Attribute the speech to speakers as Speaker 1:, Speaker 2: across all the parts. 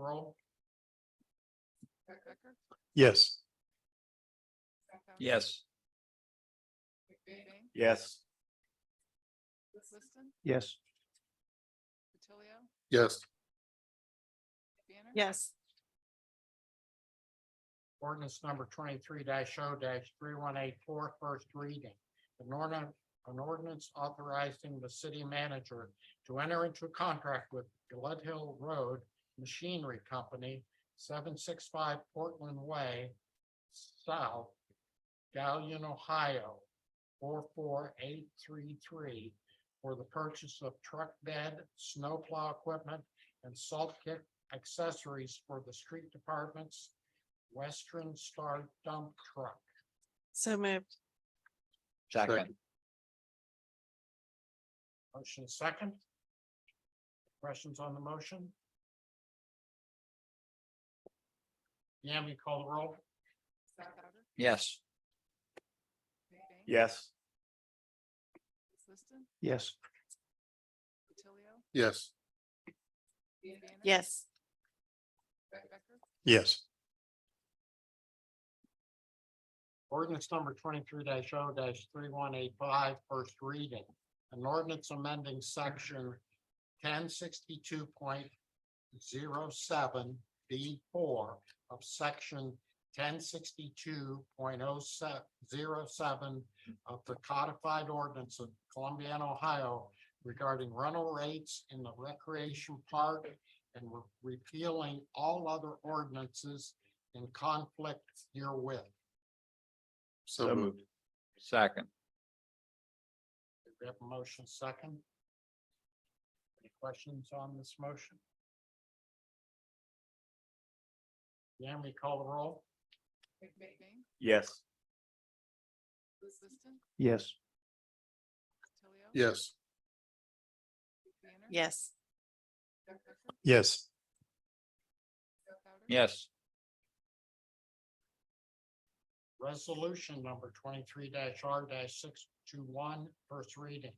Speaker 1: roll?
Speaker 2: Rick Becker,
Speaker 3: Yes.
Speaker 2: Scott Fallon,
Speaker 4: Yes.
Speaker 2: Rick Fahey,
Speaker 4: Yes.
Speaker 2: Liz Liston,
Speaker 3: Yes.
Speaker 2: Attilio,
Speaker 3: Yes.
Speaker 2: Banner.
Speaker 5: yes,
Speaker 1: Ordinance number twenty-three 0 three one eight four, first reading. An ordinance, an ordinance authorizing the city manager to enter into a contract with Glut Hill Road Machinery Company, seven six five Portland Way, South, Gallion, Ohio, four four eight three three, for the purchase of truck bed, snowplow equipment, and salt kick accessories for the street departments Western Star dump truck.
Speaker 5: so moved,
Speaker 4: Second.
Speaker 1: Motion second. Questions on the motion? Yami, call the roll.
Speaker 2: Scott Fowler,
Speaker 4: Yes.
Speaker 2: Rick Fahey,
Speaker 4: Yes.
Speaker 2: Liz Liston,
Speaker 3: Yes.
Speaker 2: Attilio,
Speaker 3: Yes.
Speaker 2: Ian Banner.
Speaker 5: yes,
Speaker 2: Rick Becker,
Speaker 3: Yes.
Speaker 1: Ordinance number twenty-three 0 three one eight five, first reading. An ordinance amending section ten sixty-two point zero seven B four of section ten sixty-two point oh seven, zero seven of the codified ordinance of Columbiana, Ohio regarding rental rates in the recreation park and re- repealing all other ordinances in conflict herewith.
Speaker 3: So moved.
Speaker 4: Second.
Speaker 1: Do We have a motion second. Any questions on this motion? Yami, call the roll?
Speaker 2: Rick Fahey,
Speaker 4: Yes.
Speaker 2: Liz Liston,
Speaker 3: Yes.
Speaker 2: Attilio.
Speaker 3: Yes.
Speaker 2: Rick Banner.
Speaker 5: yes,
Speaker 2: Scott Becker,
Speaker 3: Yes.
Speaker 2: Scott Fowler,
Speaker 4: Yes.
Speaker 1: Resolution number twenty-three R 621 first reading.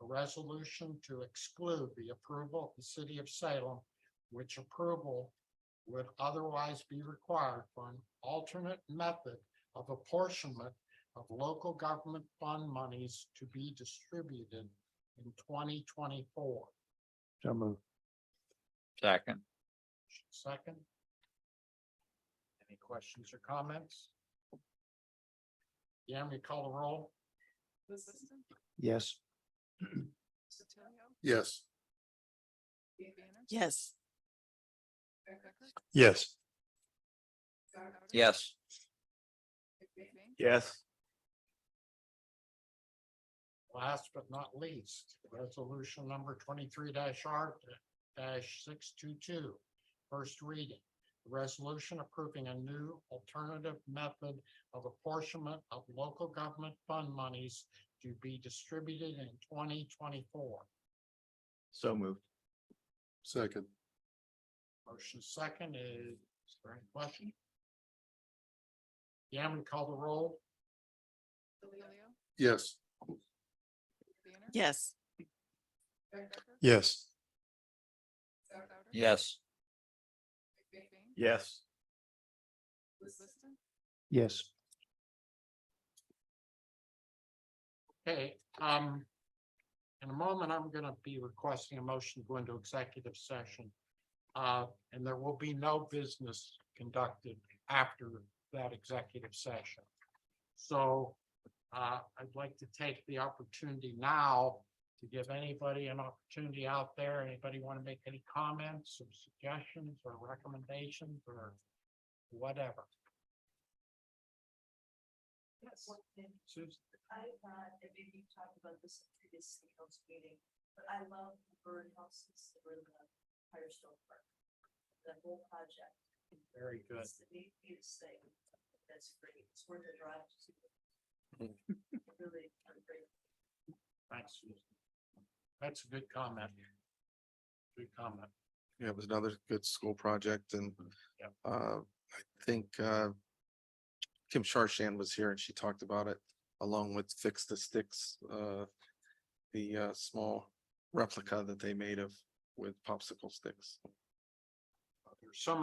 Speaker 1: A resolution to exclude the approval of the city of Salem, which approval would otherwise be required for an alternate method of apportionment of local government fund monies to be distributed in twenty twenty-four.
Speaker 3: So moved.
Speaker 4: Second.
Speaker 1: Second. Any questions or comments? Yami, call the roll?
Speaker 2: Liz Liston,
Speaker 3: Yes.
Speaker 2: Attilio,
Speaker 3: Yes.
Speaker 2: Ian Banner.
Speaker 5: yes,
Speaker 2: Rick Becker,
Speaker 3: Yes.
Speaker 2: Scott Fowler,
Speaker 4: Yes.
Speaker 2: Rick Fahey,
Speaker 4: Yes.
Speaker 1: Last but not least, resolution number twenty-three R six-two-two. First reading, resolution approving a new alternative method of apportionment of local government fund monies to be distributed in twenty twenty-four.
Speaker 4: So moved.
Speaker 3: Second.
Speaker 1: Motion second is, is there any question? Yam, call the roll?
Speaker 2: Attilio,
Speaker 3: Yes.
Speaker 2: Rick Banner.
Speaker 5: yes,
Speaker 2: Rick Becker,
Speaker 3: Yes.
Speaker 2: Scott Fowler,
Speaker 4: Yes.
Speaker 2: Rick Fahey,
Speaker 4: Yes.
Speaker 2: Liz Liston,
Speaker 3: Yes.
Speaker 1: Okay, um, in a moment, I'm gonna be requesting a motion to go into executive session. Uh, and there will be no business conducted after that executive session. So, uh, I'd like to take the opportunity now to give anybody an opportunity out there. Anybody want to make any comments or suggestions or recommendations or whatever?
Speaker 6: Yes, one thing,
Speaker 1: Susan?
Speaker 6: I thought, and maybe you talked about this in previous city council meeting, but I love the birdhouses that were in the Firestone Park. That whole project.
Speaker 1: Very good.
Speaker 6: It's the neatest thing, that's great, it's worth a drive to see. Really, I'm great.
Speaker 1: Thanks. Susan. That's a good comment. Good comment.
Speaker 7: Yeah, it was another good school project and
Speaker 1: Yep.
Speaker 7: uh, I think uh. Kim Sharshan was here and she talked about it along with Fix the Sticks, uh. The uh, small replica that they made of with popsicle sticks.
Speaker 1: There's some